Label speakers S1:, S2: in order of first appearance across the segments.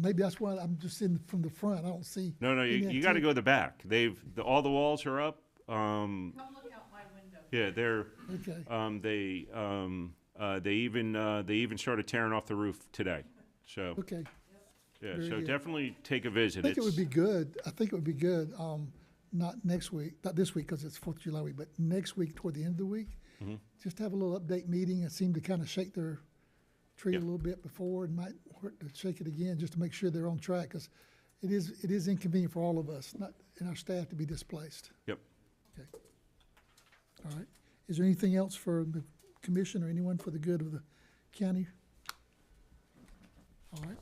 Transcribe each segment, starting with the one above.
S1: maybe that's why I'm just in from the front. I don't see.
S2: No, no, you,
S1: any
S2: you gotta
S1: activity.
S2: go to the back. They've, the- all the walls are up. Um,
S3: Come look out my window.
S2: yeah, they're,
S1: Okay.
S2: um, they, um, uh, they even, uh, they even started tearing off the roof today. So,
S1: Okay.
S2: yeah,
S1: very
S2: so
S1: good.
S2: definitely take a visit.
S1: I think it would
S2: It's,
S1: be good. I think it would be good, um, not next week, not this week because it's Fourth of July week, but next week toward the end of the week.
S2: Mm-hmm.
S1: Just have a little update meeting and seem to kind of shake their tree a
S2: Yeah.
S1: little bit before and might hurt to shake it again just to make sure they're on track because it is, it is inconvenient for all of us, not, and our staff to be displaced.
S2: yep.
S1: Okay. All right. Is there anything else for the commission or anyone for the good of the county? All right.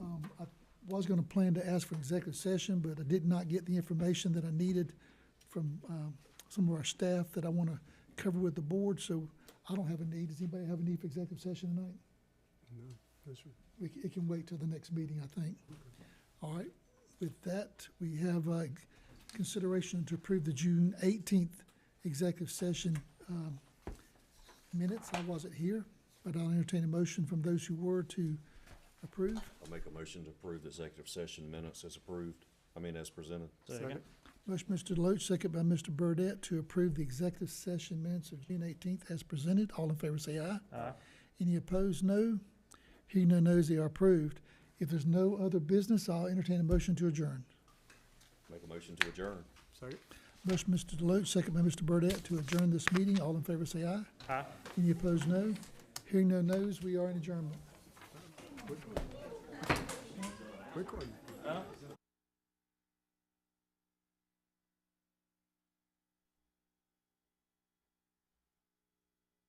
S1: Um, I was gonna plan to ask for executive session, but I did not get the information that I needed from, um, some of our staff that I wanna cover with the board, so I don't have a need. Does anybody have a need for executive session tonight? We, c- it can wait till the next meeting, I think. All right, with that, we have uh consideration to approve the June eighteenth executive session, um, minutes. I wasn't here, but I'll entertain a motion from those who were to approve.
S4: I'll make a motion to approve the executive session minutes as approved, I mean, as presented.
S5: Second.
S1: Motion, Mr. Deloach, second by Mr. Burdette, to approve the executive session minutes of June eighteenth as presented. All in favor, say aye.
S5: Aye.
S1: Any opposed, no. Hearing none, no's, they are approved. If there's no other business, I'll entertain a motion to adjourn.
S4: Make a motion to adjourn.
S1: Motion, Mr. Deloach, second by Mr. Burdette, to adjourn this meeting. All in favor, say aye.
S5: Aye.
S1: Any opposed, no. Hearing no no's, we are in adjournment.